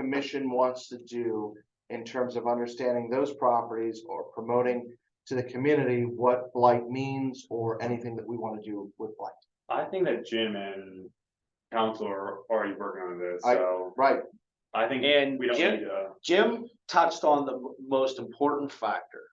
commission wants to do in terms of understanding those properties or promoting to the community what blight means or anything that we want to do with blight. I think that Jim and council are already working on this, I- so Right, I think And we don't Jim- need to. Jim touched on the m- most important factor.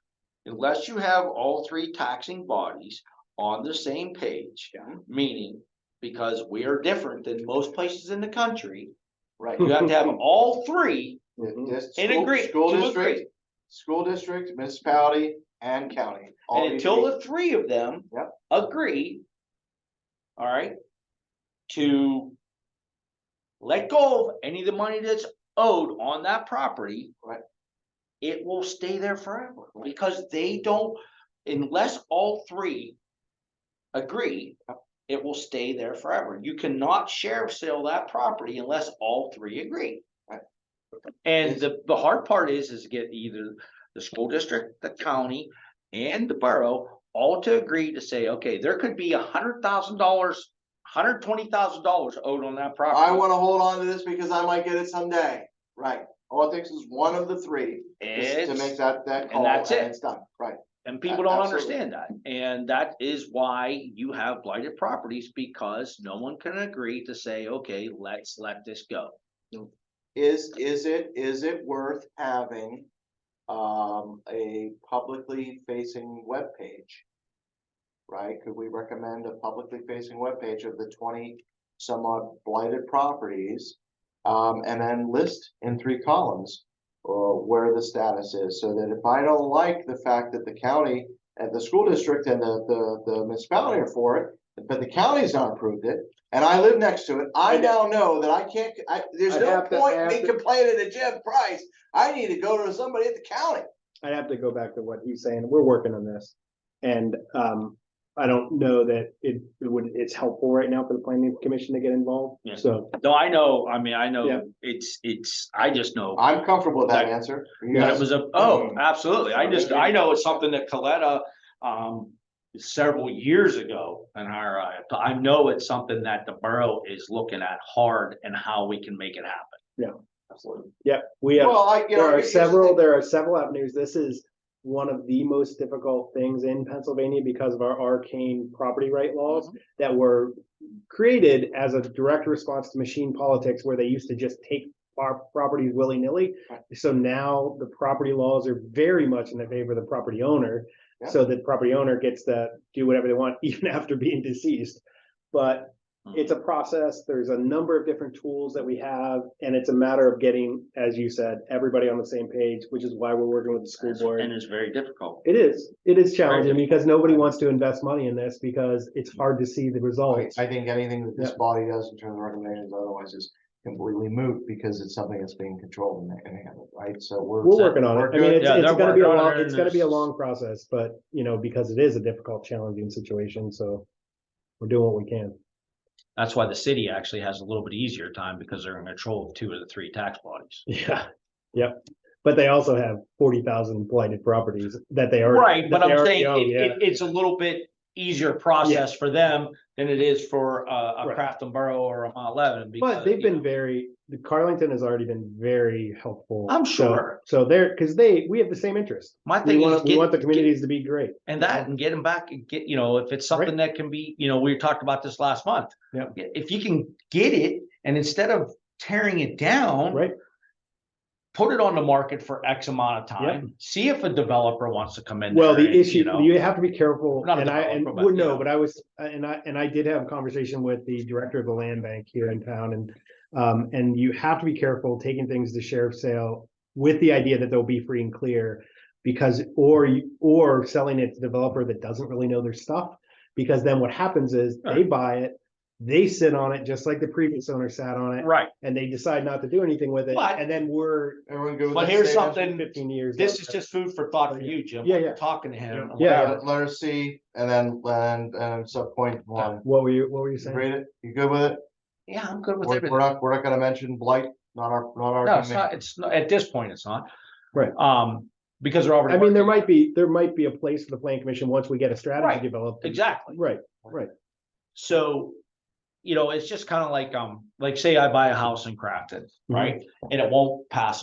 Unless you have all three taxing bodies on the same page, meaning because we are different than most places in the country, right. you have to have all three. This In school- agree- School to agree. district, school district, municipality and county. All And these until people- the three of them Yep. agree, all right, to let go of any of the money that's owed on that property. Right. It will stay there forever because they don't, unless all three agree, it will stay there forever. You cannot sheriff sale that property unless all three agree. Right. And Yes. the, the hard part is, is get either the school district, the county, and the borough all to agree to say, okay, there could be a hundred thousand dollars, hundred twenty thousand dollars owed on that property. I want to hold on to this because I might get it someday. Right. All it takes is one of the three is to It's- make that, that call and that's it. it's done. Right. And people don't absolutely. understand that, and that is why you have blighted properties, because no one can agree to say, okay, let's let this go. Is, is it, is it worth having um, a publicly facing webpage? Right? Could we recommend a publicly facing webpage of the twenty some odd blighted properties? Um, and then list in three columns uh, where the status is, so that if I don't like the fact that the county and the school district and the, the, the municipality are for it, but the county's not approved it, and I live next to it, I I'd- now know that I can't, I, there's I'd no have to point in me ask it. complaining to Jim Price. I need to go to somebody at the county. I'd have to go back to what he's saying. We're working on this. And um, I don't know that it it would, it's helpful right now for the planning commission to get involved. Yeah. So No, I know, I mean, I Yeah. know, it's, it's, I just know I'm comfortable with that That- answer. You that guys- it was a, oh, Um, Mm. absolutely, I just, I know it's something that Coletta, um, several years ago in our, uh, I know it's something that the borough is looking at hard and how we can make it happen. Absolutely. yeah, we have, Well, I, you know. there are here's the thing. several, there are several avenues. This is one of the most difficult things in Pennsylvania because of our arcane property right Mm-hmm. laws that were created as a direct response to machine politics where they used to just take our properties willy-nilly. Right. So now the property laws are very much in the favor of the property owner. Yeah. So the property owner gets to do whatever they want even after being deceased. But Hmm. it's a process. There's a number of different tools that we have, and it's a matter of getting, as you said, everybody on the same page, which is why we're working with the school board. And it's very difficult. It is, it is challenging Right. because nobody wants to invest money in this because it's hard to see the results. I think anything that this body does in terms of recommendations otherwise is completely moot because it's something that's being controlled and- and handled, right? So we're. We're working on it. I mean, good. it's, Yeah, it's they're gonna be a working on long, it, it's gonna be a and it's- long process, but, you know, because it is a difficult, challenging situation, so we're doing what we can. That's why the city actually has a little bit easier time because they're in control of two of the three tax bodies. Yeah, yep. But they also have forty thousand blighted properties that they are. Right, that but they I'm already saying own, it, yeah. it, it's a little bit easier process for them than it is for uh, a Right. Crafton Borough or a Mount Lebanon. But because, they've you been know, very, the Carlington has already been very helpful. I'm So- sure. So they're, because they, we have the same interest. My We thing is want, we want the get, get- communities to be great. and that and get them back and get, you know, if it's something that can be, you know, we talked about this last month. Yep. If you can get it and instead of tearing it down. Right. Put it on the market for X amount of time, see if a developer wants to come in. Well, there the and, you issue, know. you have to be careful, Not a and I, and, developer, but, well, you no, know. but I was, and I, and I did have a conversation with the director of the land bank here in town, and um, and you have to be careful taking things to sheriff's sale with the idea that they'll be free and clear, because, or, you- or selling it to developer that doesn't really know their stuff, because then what happens is, they buy it, they sit on it, just like the previous owner sat on it, Right. and they decide not to do anything with it, But- and then we're Everyone good with But that here's statement? something- And fifteen years. This later. is just food for thought for you, Jim. Yeah, yeah. Talking to him. Yeah, Let- Letter C and then, and, and sub point one. What were you, what were you You saying? Read it. You good with it? Yeah, I'm good with We're, everything. we're not, we're not gonna mention blight, not our, not our. No, it's domain. not, it's not, at this point, it's not. Right. Um, because they're already. I mean, there working on might be, there might be a place for the planning commission once we get a strategy Right, developed. it. Exactly. Right, So Mm-hmm. you know, it's just kind of like, um, like say I buy a house in Crafton, right? And it won't pass